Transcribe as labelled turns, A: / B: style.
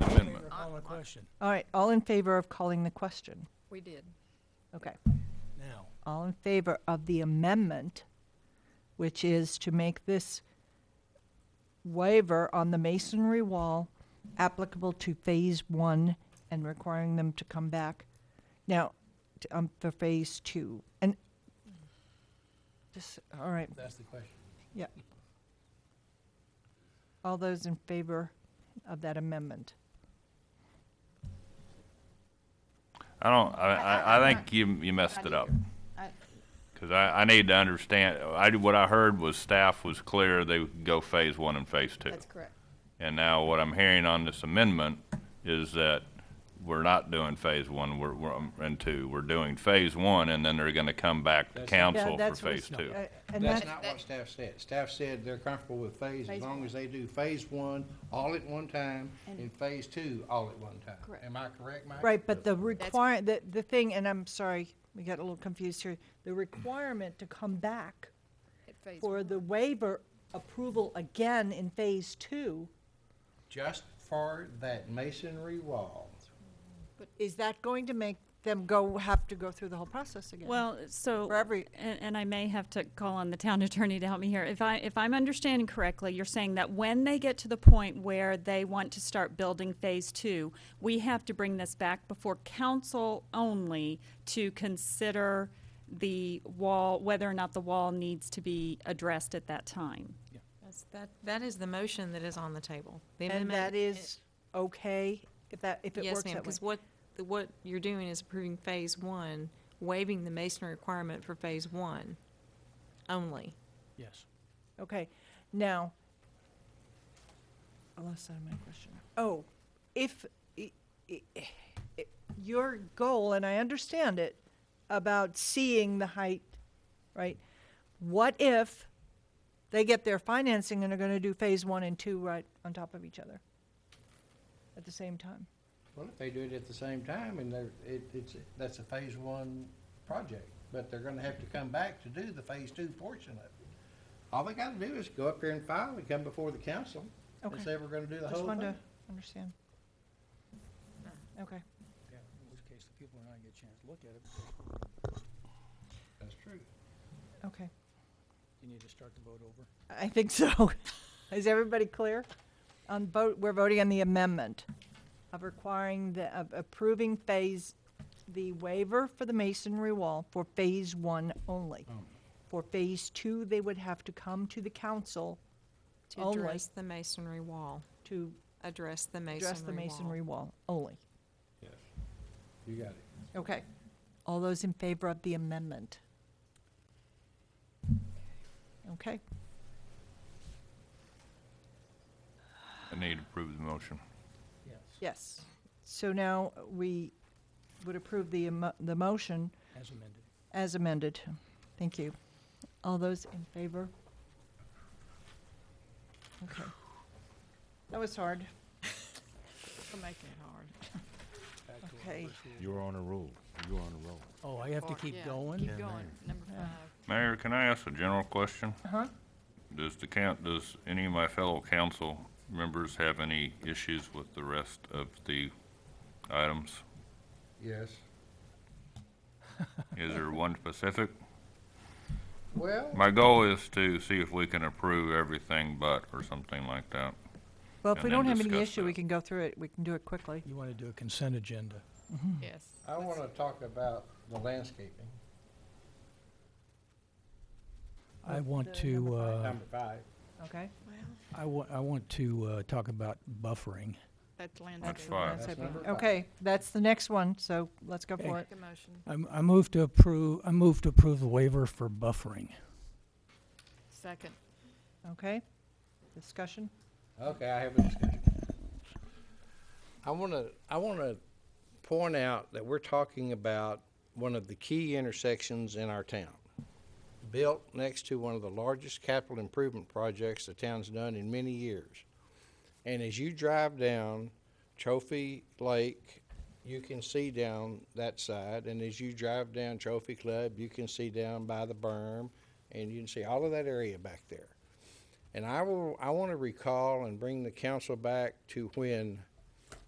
A: amendment.
B: Call the question
C: All right, all in favor of calling the question?
D: We did.
C: Okay.
B: now.
C: All in favor of the amendment, which is to make this waiver on the masonry wall applicable to Phase One and requiring them to come back now t- um, for Phase Two. And just, all right,
B: That's the question.
C: yeah. All those in favor of that amendment?
A: I don't, I, I, I think you, you messed it up. Cause I, I need to understand, I, what I heard was staff was clear they would go phase one and phase two.
D: That's correct.
A: And now what I'm hearing on this amendment is that we're not doing phase one, we're, we're, um, and two. We're doing phase one and then they're gonna come back to
E: That's-
A: council
C: Yeah,
A: for
C: that's what
A: phase
C: it's-
A: two.
C: Uh, And
E: That's
C: that's,
E: not
D: that-
E: what staff said. Staff said they're comfortable with phase as
D: Phase
E: long
D: one.
E: as they do phase one all at one time
D: And-
E: and phase two all at one time.
D: Correct.
E: Am I correct, Mike?
C: right, but the require, the, the thing, and I'm sorry, we got a little confused here. The requirement to come back
D: At phase
C: for
D: one.
C: the waiver approval again in phase two,
E: Just for that masonry wall.
C: is that going to make them go, have to go through the whole process again?
F: Well, so.
C: For every-
F: And, and I may have to call on the town attorney to help me here. If I, if I'm understanding correctly, you're saying that when they get to the point where they want to start building phase two, we have to bring this back before council only to consider the wall, whether or not the wall needs to be addressed at that time.
G: That's- That, that is the motion that is on the table. The
C: And
G: amendment-
C: that is okay, if that, if it works
G: Yes, ma'am,
C: that way?
G: because what, the- what you're doing is approving phase one, waiving the masonry requirement for phase one only.
B: Yes.
C: Okay, now, I lost out of my question. Oh, if, i- i- i- your goal, and I understand it, about seeing the height, right? What if they get their financing and are gonna do phase one and two right on top of each other at the same time?
E: Well, if they do it at the same time and they're, it, it's, that's a phase one project, but they're gonna have to come back to do the phase two portion of it. All they gotta do is go up here and file and come before the council and
C: Okay.
E: say we're gonna do the
C: Just
E: whole
C: wanted
E: thing.
C: to understand. Okay,
B: Yeah, in which case the people are not gonna get a chance to look at it because
E: That's true.
C: okay.
B: you need to start the vote over.
C: I think so. Is everybody clear? On vote, we're voting on the amendment of requiring the, of approving phase, the waiver for the masonry wall for phase one only. For phase two, they would have to come to the council
G: To
C: Only.
G: address the masonry wall,
C: to
G: address the masonry wall.
C: address the masonry wall only.
E: Yes. You got it.
C: Okay. All those in favor of the amendment? Okay.
A: I need to approve the motion.
B: Yes.
C: Yes. So now we would approve the, emo- the motion
B: As amended.
C: As amended. Thank you. All those in favor? Okay. That was hard.
G: For making it hard.
B: Back to our
C: Okay.
B: first rule.
H: You're on a roll. You're on a roll.
B: Oh, I have to
D: Or-
B: keep
D: yeah,
B: going?
D: Keep going, number five.
A: Mayor, can I ask a general question?
C: Uh-huh.
A: Does the count, does any of my fellow council members have any issues with the rest of the items?
E: Yes.
A: Is there one specific?
E: Well.
A: My goal is to see if we can approve everything but, or something like that.
C: Well, if
A: And
C: we
A: then
C: don't have any
A: discuss
C: issue, we
A: that.
C: can go through it. We can do it quickly.
B: You wanna do a consent agenda?
G: Yes.
E: I want to talk about the landscaping,
B: I want
C: the
B: to,
C: number
B: uh,
E: number five.
C: Okay?
D: Well,
B: I wa- I want to, uh, talk about buffering.
D: that's
A: That's
D: landscape.
A: fine.
E: That's number five.
C: Okay, that's the next one, so let's go for it.
D: Make a motion.
B: I'm, I move to approve, I move to approve the waiver for buffering.
D: Second.
C: Okay? Discussion?
E: Okay, I have a discussion. I want to, I want to point out that we're talking about one of the key intersections in our town. Built next to one of the largest capital improvement projects the town's done in many years. And as you drive down Trophy Lake, you can see down that side. And as you drive down Trophy Club, you can see down by the berm and you can see all of that area back there. And I will, I want to recall and bring the council back to when